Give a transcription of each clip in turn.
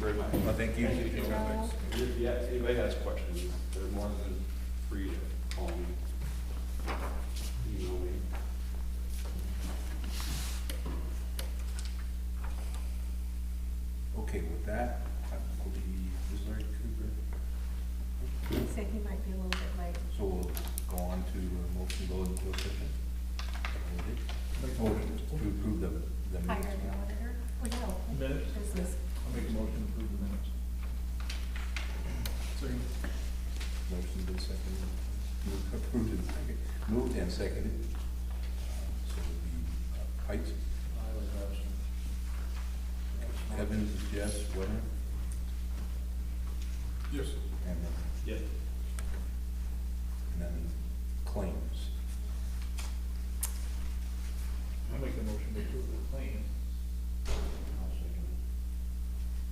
Thank you. Thank you, Carol. If you- if anybody has questions, they're more than free to call me. Email me. Okay, with that, I believe, is Larry Cooper, Say he might be a little bit late. so we'll go on to a motion to go into closed session. Motion to approve the, the Hire minutes. an auditor, or no, Minutes? business. I'll make a motion to approve the minutes. Second. Motion been seconded, Moved- approved and seconded, moved and seconded. So it would be uh, Pikes, I was Evans, yes, Wenner, Yes. and then Yep. And then claims. I'll make a motion to approve the claim.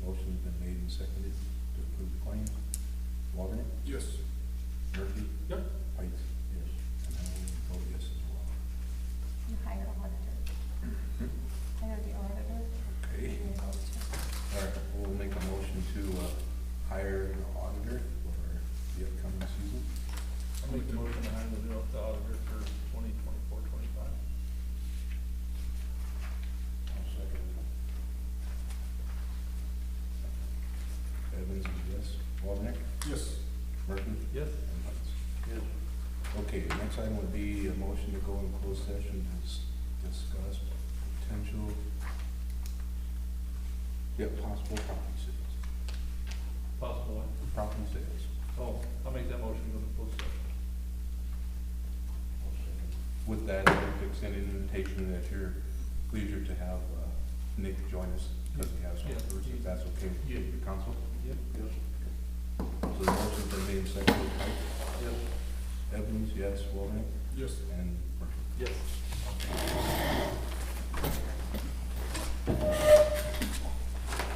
Motion's been made and seconded to approve the claims. Wagoner? Yes. Murphy? Yep. Pikes? Yes. And I will vote yes as well. You hire an auditor, hire the auditor. Okay, and the auditor. all right, we'll make a motion to uh, hire an auditor for the upcoming season. I'll make the motion to hire the auditor for twenty twenty-four, twenty-five. Evans is yes. Wagoner? Yes. Murphy? Yes. And Pikes? Yes. Okay, the next item would be a motion to go in closed session to dis- discuss potential, yeah, possible property sales, Possible one. property sales. Oh, I'll make that motion to go to closed session. With that, I would extend an invitation at your leisure to have uh, Nick join us, because he has some Yeah. words, if that's okay Yeah. with the council. Yep. Yes. So the motion's been made and seconded, Pike, Yes. Evans, yes, Wellman, Yes. and Murphy. Yes.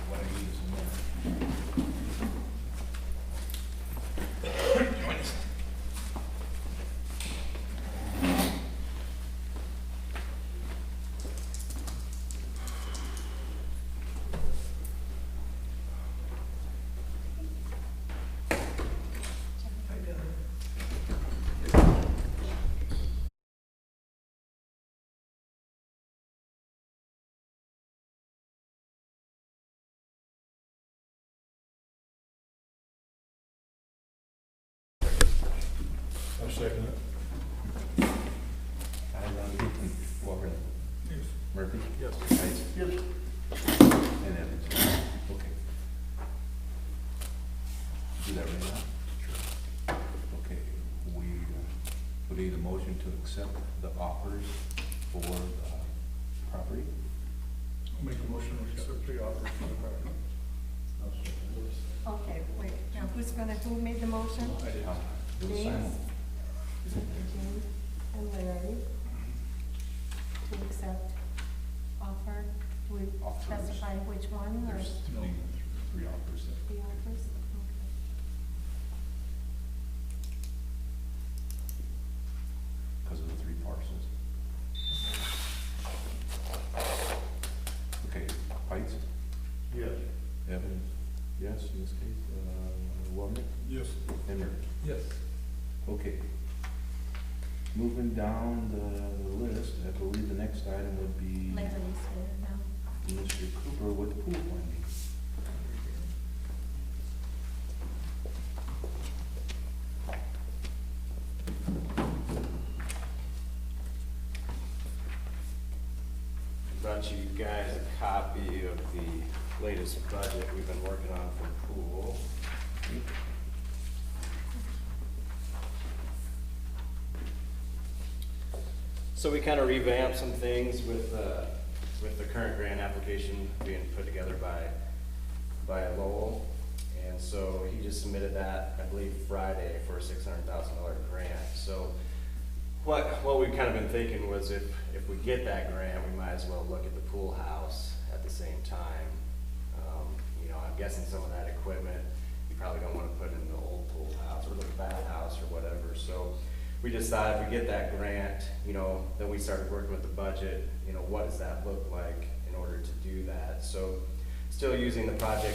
What I need is a minute. I second it. I don't get them. Walker, Yes. Murphy, Yes. Heights, Yes. and Evans. Okay. Do that right now? Okay, we, uh, we need a motion to accept the offers for the property. I'll make a motion to accept the offer for the property. Okay, wait, now who's gonna, who made the motion? I did. Uh, it was James? silent. James and Larry to accept offer. Do we Offers. specify which one or There's three, three offers that the offers? Okay. because of the three parcels. Okay, Heights? Yes. Evans? Yes, in this case, uh, Wellman? Yes. And Murphy. Yes. Okay. Moving down the, the list, I believe the next item would be Larry's here now. Mr. Cooper with pool funding. I Brought you guys a copy of the latest budget we've been working on for pool. So we kind of revamped some things with, uh, with the current grant application being put together by, by Lowell. And so he just submitted that, I believe, Friday for a six hundred thousand dollar grant. So what, what we've kind of been thinking was if, if we get that grant, we might as well look at the pool house at the same time. Um, You know, I'm guessing some of that equipment, you probably don't wanna put in the old pool house or the bathhouse or whatever, so we decided if we get that grant, you know, then we started working with the budget, you know, what does that look like in order to do that? So, still using the project